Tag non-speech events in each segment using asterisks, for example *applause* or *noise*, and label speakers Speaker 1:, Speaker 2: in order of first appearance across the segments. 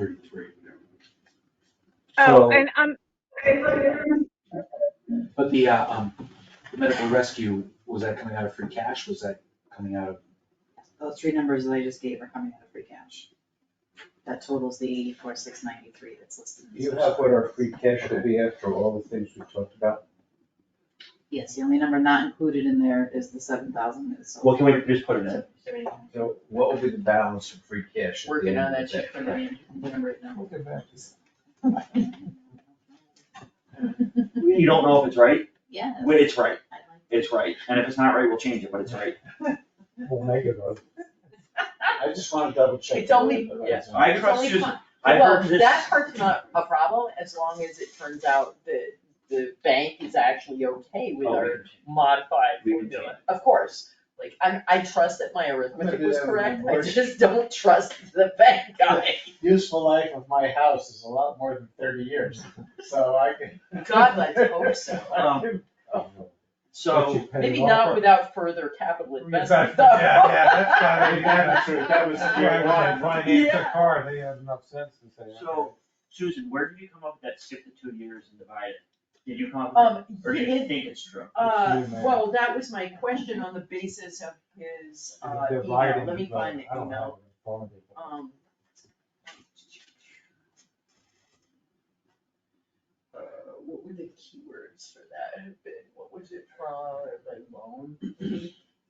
Speaker 1: thirty-three.
Speaker 2: Oh,
Speaker 1: So-
Speaker 2: and um,
Speaker 1: But the, uh, um, the medical rescue, was that coming out of free cash? Was that coming out of,
Speaker 3: Those three numbers that I just gave are coming out of free cash. That totals the eighty-four, six ninety-three that's listed. in the
Speaker 4: You
Speaker 3: special.
Speaker 4: have what our free cash will be after all the things we talked about?
Speaker 3: Yes, the only number not included in there is the seven thousand, so
Speaker 5: Well, can we just put it in?
Speaker 4: So what will be the balance of free cash at the
Speaker 3: working
Speaker 4: end
Speaker 3: on
Speaker 4: of the
Speaker 3: that check for
Speaker 4: day?
Speaker 3: the, the number it now.
Speaker 5: You don't know if it's right?
Speaker 3: Yeah.
Speaker 5: Wait, It's right, it's right. And if it's not right, we'll change it, but it's right.
Speaker 4: We'll make it up. I just wanna double check.
Speaker 6: It's only-
Speaker 4: that.
Speaker 5: Yes, I
Speaker 6: It's
Speaker 5: trust
Speaker 6: only
Speaker 5: Susan.
Speaker 6: fun-
Speaker 5: I
Speaker 6: Well,
Speaker 5: heard this.
Speaker 6: that part's not a problem, as long as it turns out that the bank is actually okay with
Speaker 5: Oh, we
Speaker 6: our
Speaker 5: can change.
Speaker 6: modified
Speaker 5: We can
Speaker 6: formula. Of course, like, I, I trust that my arithmetic
Speaker 4: do
Speaker 6: was
Speaker 7: *laughs*
Speaker 4: that with
Speaker 6: correct,
Speaker 4: my
Speaker 6: I
Speaker 4: voice.
Speaker 6: just don't trust the bank guy.
Speaker 8: useful life of my house is a lot more than thirty years, so I can.
Speaker 6: God, let's hope
Speaker 4: *laughs*
Speaker 6: so.
Speaker 5: Um, So,
Speaker 6: Maybe not without further capital investment,
Speaker 7: Exactly,
Speaker 6: though.
Speaker 7: yeah,
Speaker 6: *laughs*
Speaker 7: yeah, that's not even that,
Speaker 4: That's right, that was the
Speaker 7: Why would they finance the
Speaker 6: Yeah.
Speaker 7: car, they have enough sense to
Speaker 4: *laughs*
Speaker 7: say. okay.
Speaker 5: so Susan, where did you come up with that skip the two years and divide it? Did you come up with
Speaker 6: Um,
Speaker 5: it, or do you
Speaker 6: it-
Speaker 5: think it's true?
Speaker 6: Uh,
Speaker 7: It's you, man.
Speaker 6: well, that was my question on the basis of his,
Speaker 7: They're
Speaker 6: uh, email,
Speaker 7: dividing
Speaker 6: let me
Speaker 7: it, but
Speaker 6: find the
Speaker 7: I don't
Speaker 6: email,
Speaker 7: have it in front of me, but-
Speaker 6: um. Uh, what were the keywords for that, Have been- what was it from, like loan?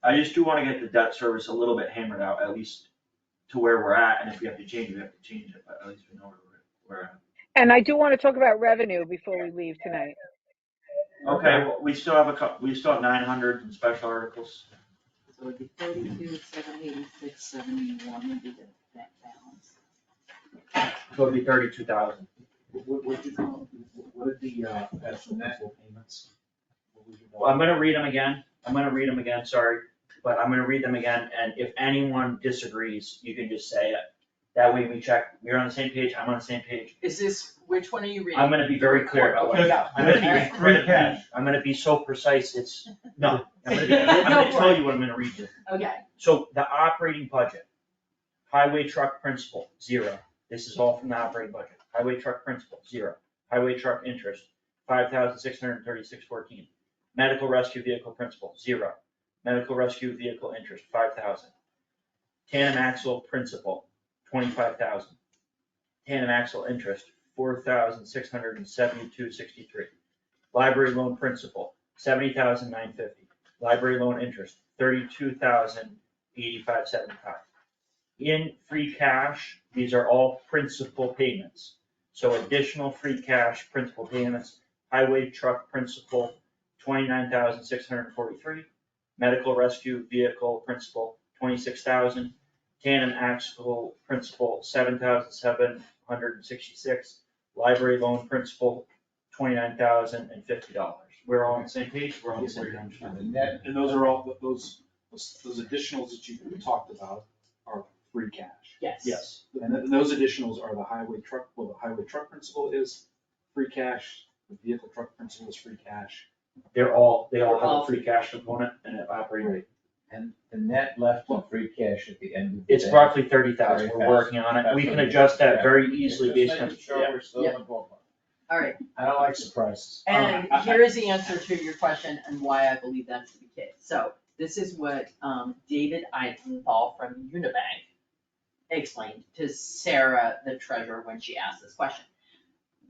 Speaker 5: I just do wanna get the debt service a little bit hammered out, at least to where we're at, and if we have to change, it, we have to change it, but at least we know where we're, we're at.
Speaker 2: and I do want to talk about revenue before we leave tonight.
Speaker 5: Okay, well, we still have a cou, we still have nine hundred in special articles.
Speaker 3: So it'd be thirty-two, seven eighty-six, seventy-one would be the net balance.
Speaker 5: So it'd be thirty-two thousand.
Speaker 1: what, what did, what did the, uh, actual principal payments? what was your-
Speaker 5: Well, I'm gonna read them again, I'm gonna read them again, sorry, but I'm gonna read them again, and if anyone disagrees, you can just say it. That way we check, we're on the same page, I'm on the same page,
Speaker 6: Is this, which one are you reading?
Speaker 5: I'm gonna be very clear about what,
Speaker 6: Okay,
Speaker 5: I'm
Speaker 6: go.
Speaker 5: gonna be
Speaker 6: Alright.
Speaker 5: incredibly, I'm gonna be so precise, it's, no, I'm gonna be, I'm gonna
Speaker 6: Go for
Speaker 5: tell you what I'm gonna read you.
Speaker 6: Okay,
Speaker 5: So the operating budget, highway truck principal, zero. This is all from the operating budget. Highway truck principal, zero. Highway truck interest, five thousand six hundred thirty-six fourteen. Medical rescue vehicle principal, zero. Medical rescue vehicle interest, five thousand. Tandem axle principal, twenty-five thousand. Tandem axle interest, four thousand six hundred and seventy-two sixty-three. Library loan principal, seventy thousand nine fifty. Library loan interest, thirty-two thousand eighty-five seventy-five. In free cash, these are all principal payments. So additional free cash principal payments, highway truck principal, twenty-nine thousand six hundred and forty-three. Medical rescue vehicle principal, twenty-six thousand. Tandem axle principal, seven thousand seven hundred and sixty-six. Library loan principal, twenty-nine thousand and fifty dollars. We're all on the same page, we're on the
Speaker 1: Yes,
Speaker 5: same page.
Speaker 1: we're on track.
Speaker 4: The net,
Speaker 1: And those are all, those, those those additionals that you talked about are free cash.
Speaker 6: yes.
Speaker 5: Yes,
Speaker 1: And th- those additionals are the highway truck, well, the highway truck principal is free cash, the vehicle truck principal is free cash.
Speaker 5: they're all, they all have a free cash component and an operating
Speaker 4: and the net left of free cash at the end of the day.
Speaker 5: It's roughly thirty thousand, we're working on it, we can adjust that very easily based on,
Speaker 4: Just making sure we're still in the ballpark.
Speaker 3: All right,
Speaker 4: I don't like surprises.
Speaker 6: And here is the answer to your question and why I believe that's the case. So this is what um David Eisenthal from Unibank explained to Sarah, the treasurer, when she asked this question.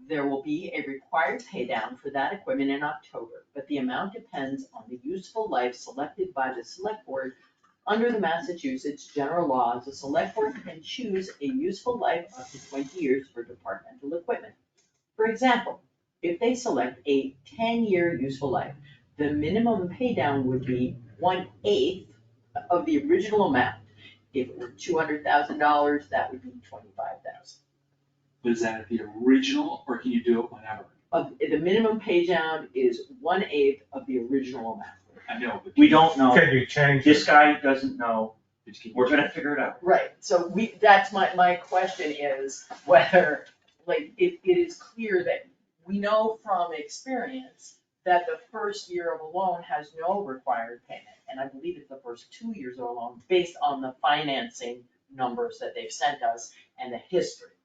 Speaker 6: There will be a required pay down for that equipment in October, but the amount depends on the useful life selected by the select board. Under the Massachusetts general laws, the select board can choose a useful life up to twenty years for departmental equipment. For example, if they select a ten-year useful life, the minimum paydown would be one-eighth of the original amount. If it were two hundred thousand dollars, that would be twenty-five thousand.
Speaker 1: But is that the original, or can you do it whenever?
Speaker 6: Of, the minimum paydown is one-eighth of the original amount.
Speaker 1: I know, but.
Speaker 5: we don't know,
Speaker 7: Can you change
Speaker 5: this
Speaker 7: it?
Speaker 5: guy doesn't know,
Speaker 1: but can you-
Speaker 5: we're gonna figure it out.
Speaker 6: Right, so we, that's my, my question is whether, like, it, it is clear that we know from experience that the first year of a loan has no required payment, and I believe it's the first two years of a loan, based on the financing numbers that they've sent us and the history.